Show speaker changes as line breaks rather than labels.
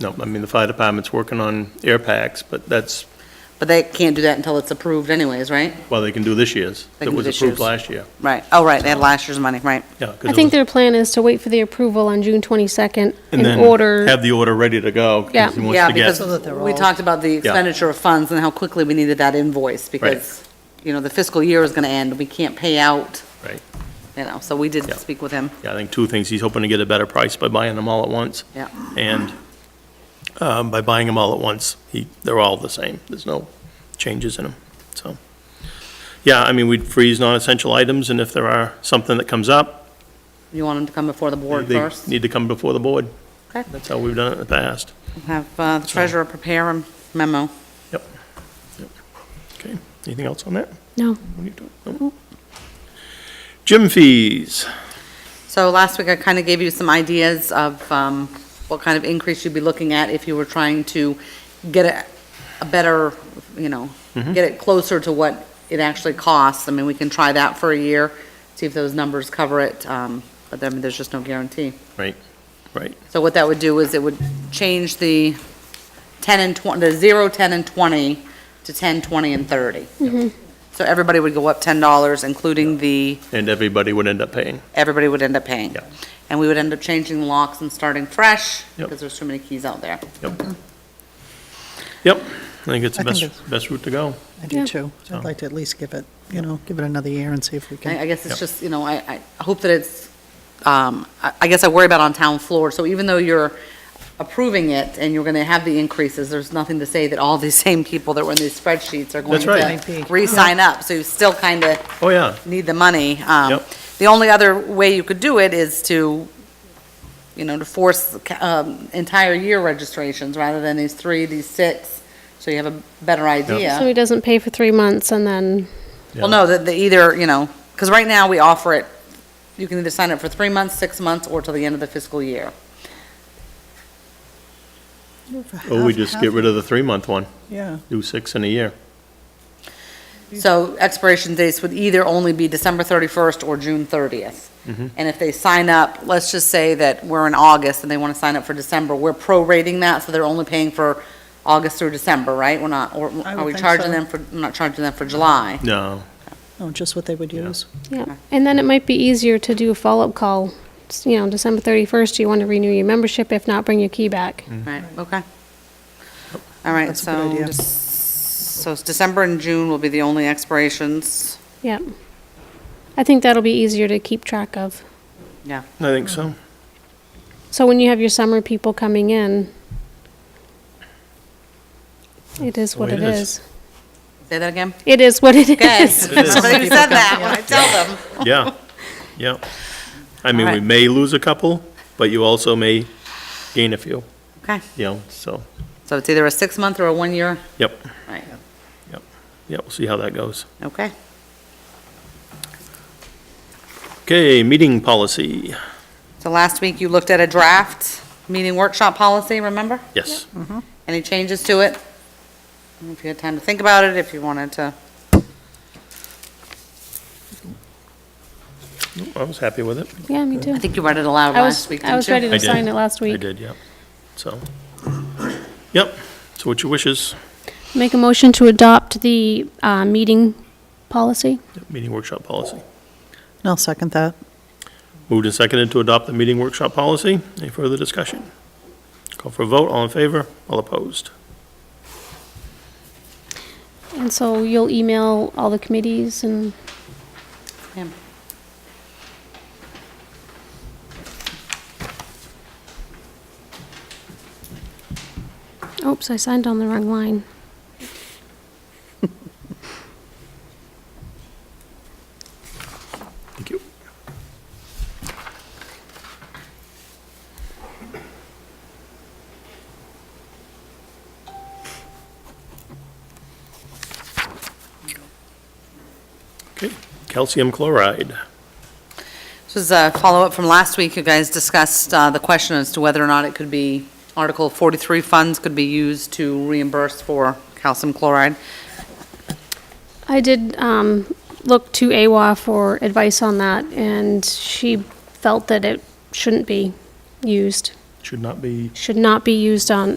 No, I mean, the fire department's working on air packs, but that's,
But they can't do that until it's approved anyways, right?
well, they can do this year's.
They can do
That was
this
approved
year's.
last year.
Right, oh, right, they had last year's money, right.
Yeah. 'cause
I
it
think
was-
their plan is to wait for the approval on June 22nd
And
in
then
order.
have the order ready to go. 'cause
Yeah.
he wants
Yeah,
to get-
because
So that they're
we
all-
talked about the expenditure of funds and how quickly we needed that invoice, because, you know, the fiscal year is gonna end, we can't pay out,
Right,
you know, so we did
Yeah.
speak with him.
yeah, I think two things, he's hoping to get a better price by buying them all at once.
Yeah.
And um, by buying them all at once, he, they're all the same, there's no changes in them, so. Yeah, I mean, we'd freeze non-essential items, and if there are something that comes up,
You want him to come before the board
they
first?
need to come before the board.
Okay.
That's how we've done it in the past.
Have uh, the treasurer prepare a memo.
Yep. Yep. Okay, anything else on that?
No,
What are you doing? Nope. Gym fees.
So last week, I kind of gave you some ideas of um, what kind of increase you'd be looking at if you were trying to get a- a better, you know,
Mm-hmm.
get it closer to what it actually costs. I mean, we can try that for a year, see if those numbers cover it, um, but then there's just no guarantee.
Right, right.
So what that would do is it would change the 10 and 20, the 0, 10, and 20 to 10, 20, and 30. So everybody would go up $10, including the
And everybody would end up paying.
everybody would end up paying.
Yeah.
And we would end up changing the locks and starting fresh,
Yep.
because there's too many keys out there.
Yep. Yep, I think it's the
I think
best, best route to go.
I
Yeah.
do too.
So-
I'd like to at least give it, you know, give it another year and see if we
I, I
can.
guess it's
Yep.
just, you know, I, I hope that it's, um, I, I guess I worry about on town floor, so even though you're approving it and you're gonna have the increases, there's nothing to say that all these same people that were in these spreadsheets are going
That's right.
to re-sign up, so you still kinda
Oh, yeah,
need the money. Um,
Yep.
The only other way you could do it is to, you know, to force the ca- um, entire year registrations rather than these three, these six, so you have a better
so
idea.
he doesn't pay for three months and then,
Well, no, that the either, you know, because right now we offer it, you can either sign up for three months, six months, or till the end of the fiscal year.
or Oh, we just get rid of the three-month one,
Yeah,
do six in a year.
So expiration dates would either only be December 31st or June 30th. And if they sign up, let's just say that we're in August and they want to sign up for December, we're prorating that, so they're only paying for August through December, right? We're not, or
I
are
would
we
think
charging
so.
them for, I'm not charging them for July.
No,
no, Oh, just what they would
Yeah.
use.
yeah. And then it might be easier to do a follow-up call, S- you know, December 31st, do you want to renew your membership? If not, bring your key back.
Mm-hmm.
Right, okay. All right,
That's a good
so,
idea.
just- so it's December and June will be the only expirations.
Yep. I think that'll be easier to keep track of.
Yeah,
I think so.
So when you have your summer people coming in, it is
the
what
way
it
Oh, it is.
is.
say that again?
It is what it
Okay,
is.
It is.
somebody said that when I tell them.
Yeah, yeah. I mean, we
Alright.
may lose a couple, but you also may gain a few,
Okay,
you know, so,
so it's either a six-month or a one-year,
yep,
right?
yep. Yep, we'll see how that goes.
Okay.
Okay, meeting policy,
So last week, you looked at a draft meeting workshop policy, remember?
yes.
Any changes to it? If you had time to think about it, if you wanted to,
I was happy with it.
Yeah, me too.
I think you read it aloud
I was,
last week, didn't you?
I was ready
I
to
did.
sign it last
I
week.
did, yeah. So, yep, so what's your wishes?
Make a motion to adopt the uh, meeting policy?
Yep, Meeting workshop policy.
And I'll second that.
Moved and seconded to adopt the meeting workshop policy. Any further discussion? Call for a vote, all in favor, all opposed.
And so you'll email all the committees and,
Yeah.
oops, I signed on the wrong line.
Thank you. Okay, calcium chloride.
This was a follow-up from last week. You guys discussed uh, the question as to whether or not it could be, Article 43 funds could be used to reimburse for calcium chloride.
I did um, look to AWA for advice on that, and she felt that it shouldn't be used.
should not be
Should not be used on